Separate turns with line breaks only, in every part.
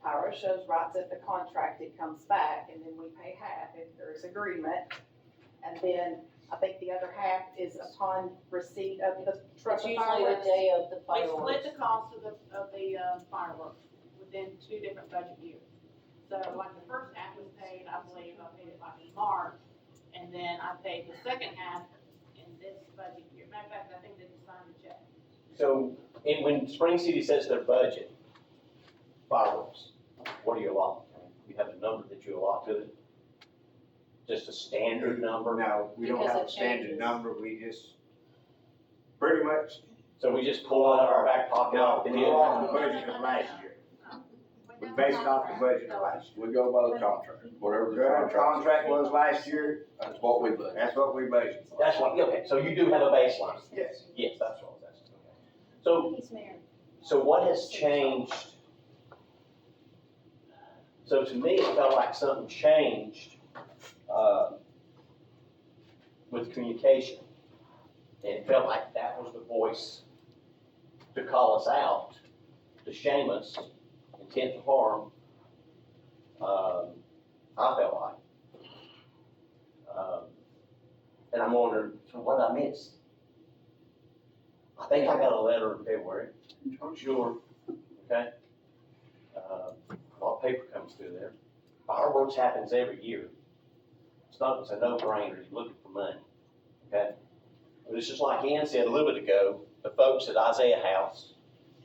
Tyra shows writes up the contract, it comes back, and then we pay half if there is agreement. And then I think the other half is upon receipt of the truck
It's
of
usually the
fireworks.
day of the
We split
fireworks.
the cost of the, of the uh, fireworks within two different budget years. So like the first half was paid, I believe, I paid it like in March, and then I paid the second half in this budget year. Matter of fact, I think they just signed the check.
So, and when Spring City says their budget, fireworks, what do you allot? You have a number that you allot to it? Just a standard number?
No, we don't
Because
have
it
a standard
changes.
number, we just, pretty much,
So we just pull out of our back pocket
no,
and
we
then-
go
all-
off the budget of last year. We based it off the budget of last year.
We go by the contract, whatever the
Whatever
contract.
the contract was last year,
That's what we budget.
that's what we budgeted.
That's what, okay, so you do have a baseline?
Yes.
Yes, that's what I was asking. So, so what has changed? So to me, it felt like something changed, uh, with communication. And it felt like that was the voice to call us out, to shame us, intent to harm. Um, I felt like. Um, And I'm wondering, so what did I miss? I think I got a letter in February. Sure. Okay. Uh, A lot of paper comes through there. Fireworks happens every year. It's not, it's a no-brainer, you're looking for money, okay? But it's just like Ann said a little bit ago, the folks at Isaiah House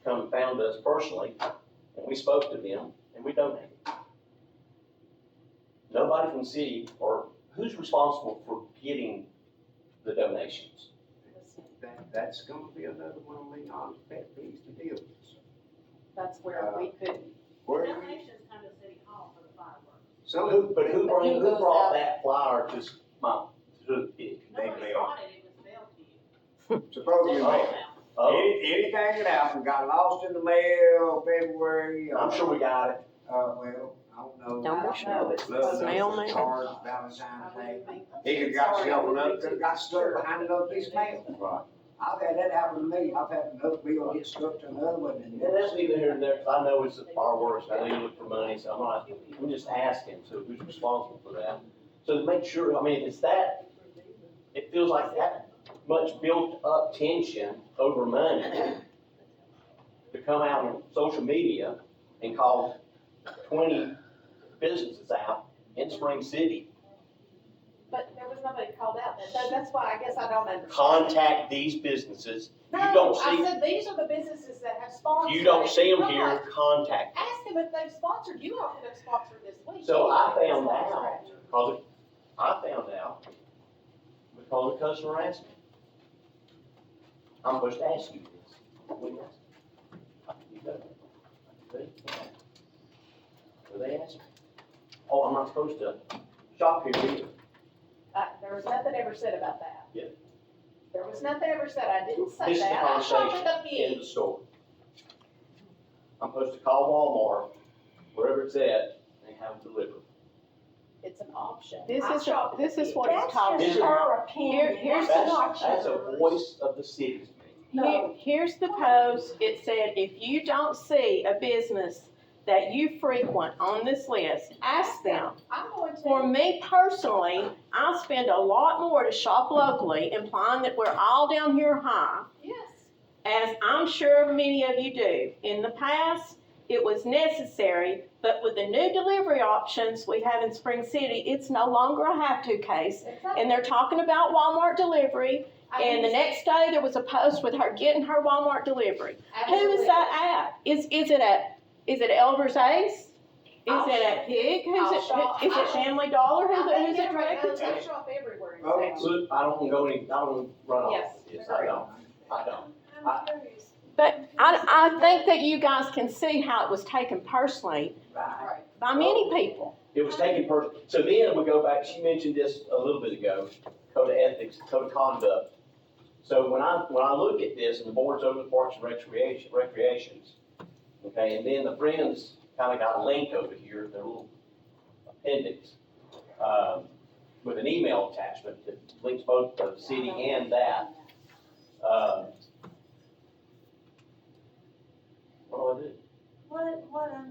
come and found us personally, and we spoke to them, and we donated. Nobody from the city, or who's responsible for getting the donations?
That, that's gonna be another one of Leon's pet peeves to deal with.
That's where we could,
Where,
Donations come to City Hall for the fireworks.
So
some,
who, but who
But
bring,
who
who
goes
brought
out?
that flyer to s- my, to the pig?
Nobody
mail.
bought it, it was mailed to you.
supposedly,
Oh.
any- anything that happened, got lost in the mail, February. uh,
I'm sure we got it.
Uh, well, I don't know.
I
Don't
don't know. It's
Love
supposed to be
Mail,
those
mail.
cards,
I
Valentine's Day.
wouldn't think-
He could got
Sorry, I
shoved
wouldn't
up,
think
could got stuck behind another piece of mail.
Right.
I've had that happen to me, I've had another bill get stuck to another one and.
And that's neither here nor there, 'cause I know it's the fireworks, I know you look for money, so I'm not, I'm just asking, so who's responsible for that? So to make sure, I mean, it's that, it feels like that much built-up tension over money to come out on social media and call twenty businesses out in Spring City,
But there was nobody called out, that- so that's why I guess I don't understand.
contact these businesses, you don't
No, I
see,
said, these are the businesses that have sponsored.
you don't
it.
see them
Come on.
here, contact them.
Ask them if they've sponsored, you all could have sponsored this week.
So I found
Sponsor
out,
it.
because it- I found out, because the customer asked me. I'm supposed to ask you this. What do you ask? I can do that. I can do that. So they asked me, oh, I'm not supposed to shop here either.
Uh, there was nothing ever said about that.
Yeah.
There was nothing ever said, I didn't say
This is the
that, I shot with a
in
pig.
the store. I'm supposed to call Walmart, wherever it's at, and have it delivered.
It's an option.
This
I
is,
shot with a
this is
pig.
what it's called.
This is-
her
Here, here's the
That's, that's a voice of the city to me.
Here- Here's the post, it said, if you don't see a business that you frequent on this list, ask them.
I'm going to.
For me personally, I spend a lot more to shop locally, implying that we're all down here high,
Yes.
as I'm sure many of you do. In the past, it was necessary, but with the new delivery options we have in Spring City, it's no longer a have-to case.
Exactly.
And they're talking about Walmart delivery,
I
And the
understand.
next day, there was a post with her getting her Walmart delivery. Who is
Absolutely.
that at? Is, is it at, is it Elder's Ace? Is it at Pig? Who's it, who- is it Family Dollar? Who's
I
it,
think
who's it
they're right
directed
now,
to?
they shop everywhere. in
Oh,
Okay.
town.
Look, I don't go any, I don't run off
Yes,
this, I don't, I don't.
I'm curious.
But I, I think that you guys can see how it was taken personally
Right.
Right.
by many
Oh.
people.
It was taken personally. So then we go back, she mentioned this a little bit ago, code of ethics, code of conduct. So when I, when I look at this and the board's over the parks and recreation, recreations, okay, and then the friends kind of got a link over here, their little appendix, um, with an email attachment that links both the city and that. Um, What do I do?
What, um, what I'm